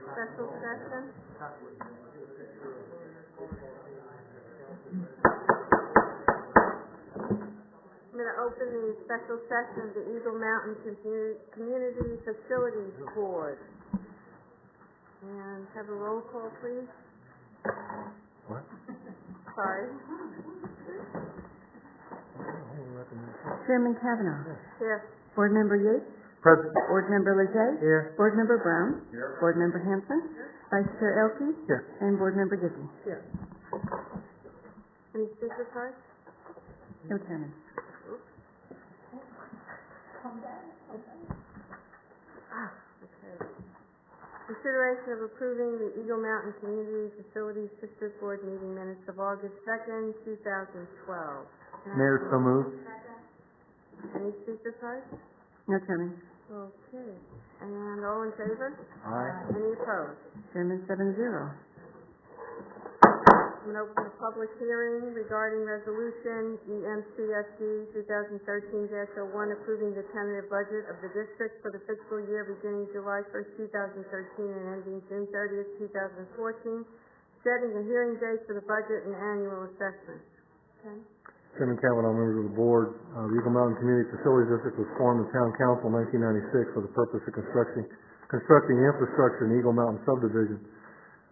Special session? I'm gonna open the special session of the Eagle Mountain Commu- Community Facilities Board. And have a roll call, please. What? Sorry. Chairman Kavanaugh. Yes. Board Member Yates. Present. Board Member Lejay. Here. Board Member Brown. Board Member Hanson. Vice Chair Elke. Here. And Board Member Gibney. Any speaker cards? No chairman. Okay. Consideration of approving the Eagle Mountain Community Facilities District Board meeting minutes of August second, two thousand twelve. Mayor, so moved. Any speaker cards? No chairman. Okay. And all in favor? Aye. Any opposed? Chairman seven zero. I'm going to open the public hearing regarding resolution E EMCSD two thousand thirteen oh one approving the tentative budget of the district for the fiscal year beginning July first, two thousand thirteen and ending June thirtieth, two thousand fourteen, setting a hearing date for the budget and annual assessment. Okay? Chairman Kavanaugh, members of the board, uh, the Eagle Mountain Community Facilities District was formed in Town Council in 1996 for the purpose of constructing, constructing infrastructure in Eagle Mountain subdivision.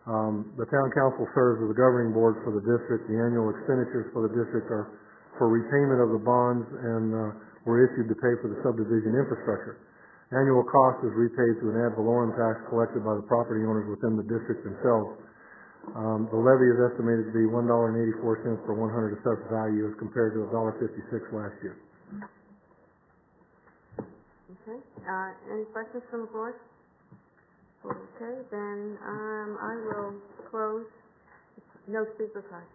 Um, The Town Council serves as the governing board for the district. The annual expenditures for the district are for repayment of the bonds and uh, were issued to pay for the subdivision infrastructure. Annual cost is repaid through an ad valorem tax collected by the property owners within the district themselves. Um, the levy is estimated to be one dollar and eighty-four cents per one hundred assessed value as compared to $1.56 last year. Okay, uh, any questions from the board? Okay, then, um, I will close, no speaker cards.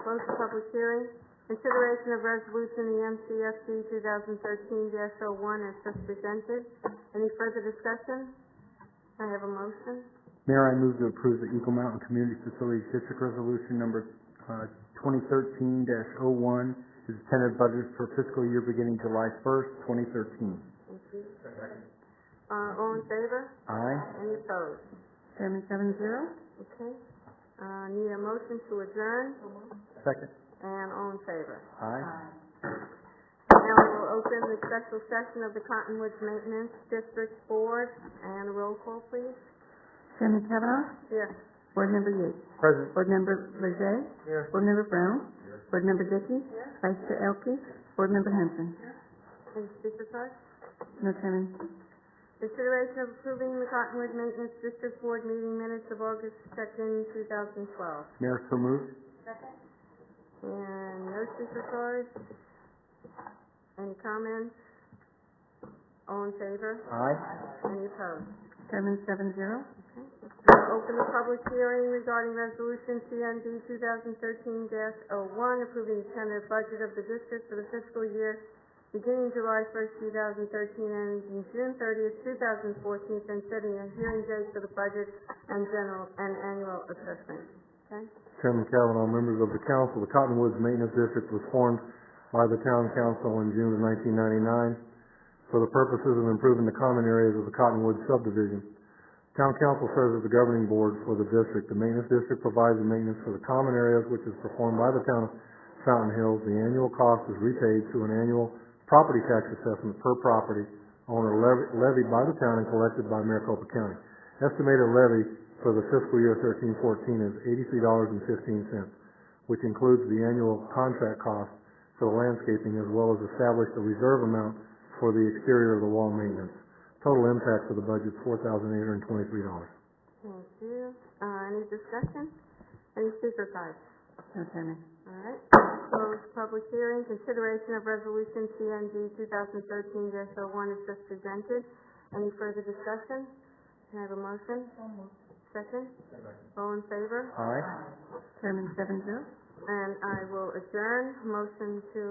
Close the public hearing. Consideration of resolution, the MCSD two thousand thirteen dash oh one as just presented. Any further discussion? I have a motion. Mayor, I move to approve the Eagle Mountain Community Facilities District Resolution Number uh, 2013-01, is the tentative budget for fiscal year beginning July 1st, 2013. Thank you. Uh, all in favor? Aye. Any opposed? Chairman seven zero. Okay. Uh, need a motion to adjourn, Second. and all in favor? Aye. Now we will open the special session of the Cottonwoods Maintenance District Board, and roll call, please. Chairman Kavanaugh. Yes. Board Member Yates. Present. Board Member Lejay. Board Member Brown. Board Member Dickey. Vice Chair Elke. Board Member Hanson. And speaker cards? No chairman. Consideration of approving the Cottonwood Maintenance District Board meeting minutes of August second, two thousand twelve. Mayor, so moved. And no speaker cards? Any comments? All in favor? Aye. Any opposed? Chairman seven zero. Now Open the public hearing regarding resolution CND two thousand thirteen dash oh one, approving the tentative budget of the district for the fiscal year beginning July first, two thousand thirteen, and ending June thirtieth, two thousand fourteen, and setting a hearing date for the budget and general, and annual assessment. Okay? Chairman Kavanaugh, members of the council, the Cottonwoods Maintenance District was formed by the town council in June of 1999 for the purposes of improving the common areas of the Cottonwoods subdivision. Town council serves as the governing board for the district. The maintenance district provides the maintenance for the common areas, which is performed by the town of Fountain Hills. The annual cost is repaid through an annual property tax assessment per property owner levy- levied by the town and collected by Maricopa County. Estimated levy for the fiscal year thirteen fourteen is eighty-three dollars and fifteen cents, which includes the annual contract cost for the landscaping as well as establish the reserve amount for the exterior of the wall maintenance. Total impact for the budget is four thousand eight hundred and twenty-three dollars. Thank you. Uh, any discussion? Any speaker cards? No chairman. All right, closed public hearing, consideration of resolution CND two thousand thirteen dash oh one is just presented. Any further discussion? Can I have a motion? Second? All in favor? Aye. Chairman seven zero. And I will adjourn, motion to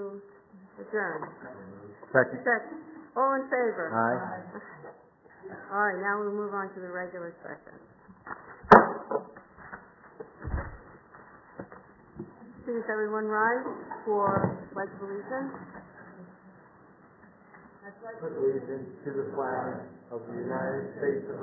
adjourn. Second. Second, all in favor? Aye. All right, now we'll move on to the regular session. Please, everyone rise for pledge of allegiance. allegiance to the flag of the United States of